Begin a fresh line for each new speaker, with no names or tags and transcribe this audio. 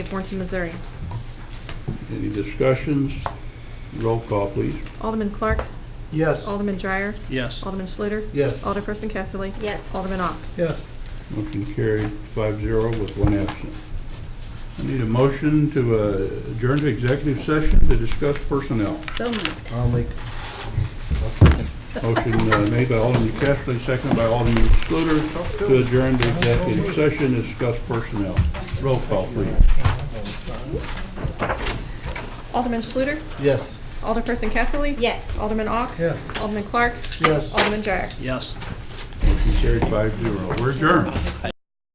Warrenton, Missouri.
Any discussions? Roll call, please.
Alderman Clark,
Yes.
Alderman Dreyer,
Yes.
Alderman Schluter,
Yes.
Alderperson Casterly,
Yes.
Alderman Ock.
Yes.
Motion carried five zero with one absent. I need a motion to uh, adjourn to executive session to discuss personnel.
So moved.
I'll make. I'll second.
Motion uh, made by Alderman Kessley, seconded by Alderman Schluter to adjourn to executive session to discuss personnel. Roll call, please.
Alderman Schluter,
Yes.
Alderperson Casterly.
Yes.
Alderman Ock.
Yes.
Alderman Clark,
Yes.
Alderman Dreyer.
Yes.
Motion carried five zero. We're adjourned.
I